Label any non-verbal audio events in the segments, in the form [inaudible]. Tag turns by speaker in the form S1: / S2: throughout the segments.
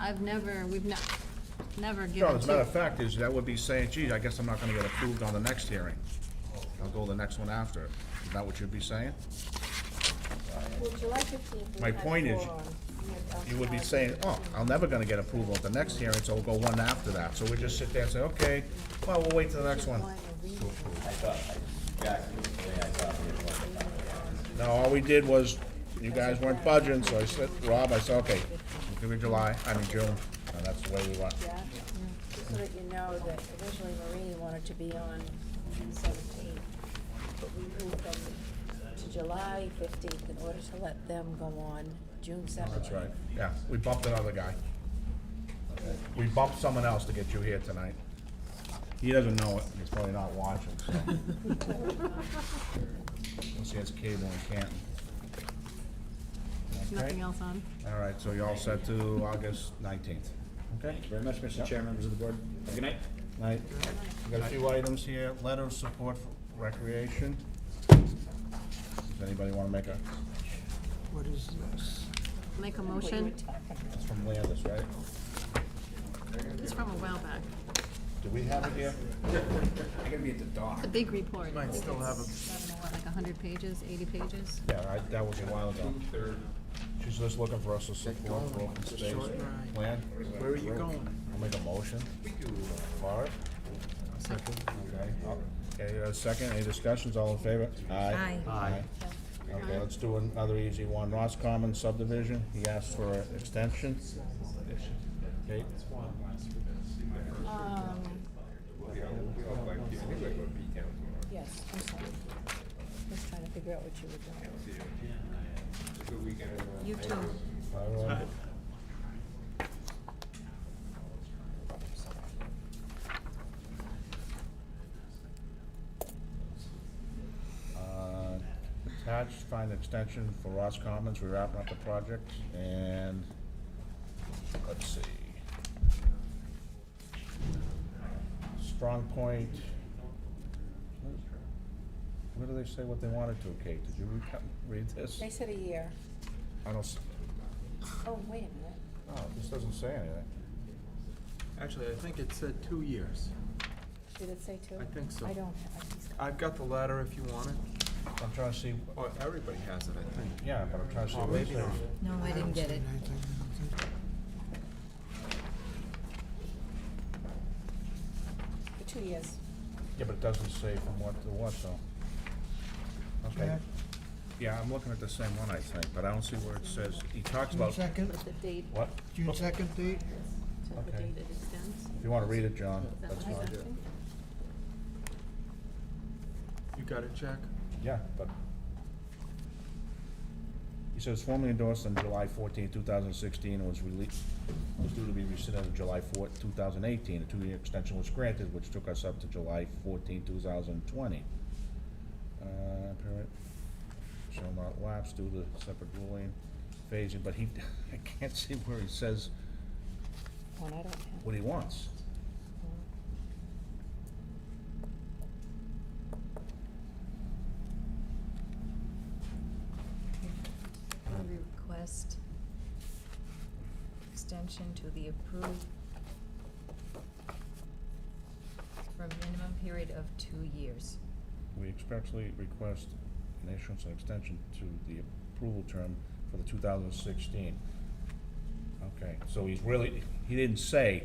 S1: I've never, we've not, never
S2: No,
S1: given
S2: as a matter
S1: two.
S2: of fact, is, that would be saying, geez, I guess I'm not gonna get approved on the next hearing. I'll go the next one after. Is that what you'd be saying?
S3: Well, July fifteenth.
S2: My point is, You would be saying, oh, I'm never gonna get approval at the next hearing, so we'll go one after that. So we just sit there and say, okay, well, we'll wait till the next one. No, all we did was, you guys weren't budging, so I said, Rob, I said, okay, we'll give you July, I mean June, and that's the way we went.
S3: Yeah, just so that you know that originally Marie wanted to be on June seventeenth, but we moved them to July fifteenth in order to let them go on June seventeenth.
S2: That's right, yeah, we bumped another guy. We bumped someone else to get you here tonight. He doesn't know it, he's probably not watching, so. Unless he has cable in Canton.
S1: There's
S2: Okay.
S1: Nothing else on.
S2: All right, so you're all set to August nineteenth.
S4: Okay, thank you very much, Mr. Chair, members of the board. Have a good night.
S2: Night. We've got a few items here, letter of support for recreation. Does anybody wanna make a,
S5: What is this?
S1: Make a motion.
S2: it's from Landis, right?
S1: It's from a while back.
S2: Do we have it
S4: [laughs]
S2: here?
S4: I'm gonna be at the dock.
S1: A big report.
S5: Might still have a-
S1: It's, I don't know, what, Like a hundred pages, eighty pages.
S2: Yeah, I, that was a while ago. She's just looking for us to support for open
S5: It's a
S2: space
S5: short ride.
S2: plan.
S5: Where are you going?
S2: I'll make a motion for it. Okay, I'll- okay, you got a second, any discussions, all in favor? Aye.
S1: Aye.
S2: Aye. Okay, let's do another easy one, Ross Common subdivision, he asked for an extension. Okay,
S3: Um,
S6: But
S3: yes, I'm sorry. Just trying to figure out what you were doing.
S6: we can, uh,
S1: You too.
S2: Byron. Uh, Attached, find extension for Ross Commons, we're wrapping up the project, and, let's see. Strong Point. Where do they say what they wanted to, Kate? Did you re- read this?
S3: They said a year.
S2: I don't, s-
S3: Oh, wait a minute.
S2: oh, this doesn't say anything.
S5: Actually, I think it said two years.
S3: Did it say two?
S5: I think so.
S3: I don't have, I just-
S5: I've got the letter if you want it.
S2: I'm trying to see,
S5: Oh, everybody has it, I think.
S2: yeah, but I'm trying to see
S5: Oh,
S2: what it
S5: maybe not.
S2: says.
S1: No, I didn't get it.
S3: for two years.
S2: Yeah, but it doesn't say from what to what, though. Okay.
S5: Jack?
S2: Yeah, I'm looking at the same one, I think, but I don't see where it says, he talks about, Oh.
S5: second,
S1: The date,
S2: what?
S5: June second date?
S1: so the
S2: Okay.
S1: date it extends.
S2: If you wanna read it, John,
S1: Is that
S2: that's
S1: what I
S2: fine.
S1: got?
S5: You got it, Jack?
S2: Yeah, but. He says formally endorsed on July 14, thousand sixteen, and was released, was due to be rescinded on July 4, thousand eighteen. A two-year extension was granted, which took us up to July 14, thousand twenty. Uh, permit shall not lapse due to separate ruling phasing, but he, [laughs] I can't see where he says
S3: One I don't have.
S2: what he wants.
S7: We request extension to the approved for a minimum period of two years.
S2: We expressly request an issuance and extension to the approval term for the two thousand sixteen. Okay, so he's really, he didn't say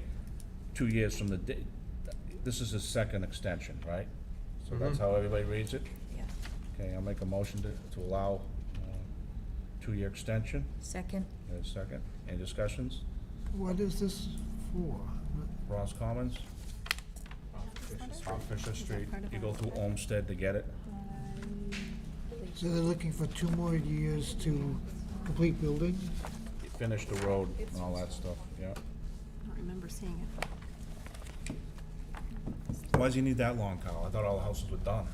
S2: two years from the date, this is his second extension, right? So that's
S5: Mhm.
S2: how everybody reads it?
S7: Yeah.
S2: Okay, I'll make a motion to, to allow, uh, two-year extension.
S7: Second,
S2: There's a second. Any discussions?
S5: What is this for?
S2: Ross Commons? Off Fisher Street. You go through Olmsted to get it?
S5: So they're looking for two more years to complete building?
S2: Finish the road and all that stuff, yeah.
S1: I don't remember seeing it.
S2: Why does he need that long, Kyle? I thought all the houses were done.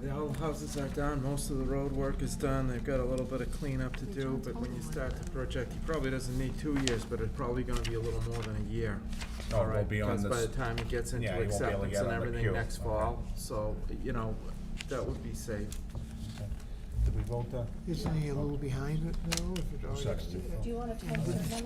S8: The old houses are done, most of the road work is done, they've got a little bit of cleanup to do, but when you start the project, he probably doesn't need two years, but it's probably gonna be a little more than a year.
S2: Oh,
S8: All
S2: it won't
S8: right,
S2: be on
S8: Because by
S2: this-
S8: the time he gets into
S2: Yeah, he won't be able to
S8: acceptance
S2: get on
S8: and
S2: the
S8: everything
S2: queue.
S8: next
S2: Okay.
S8: fall, so, you know, that would be safe.
S2: Did we vote the?
S5: Isn't he a little behind it now? if it already-
S2: Second.
S3: Do you wanna tell them?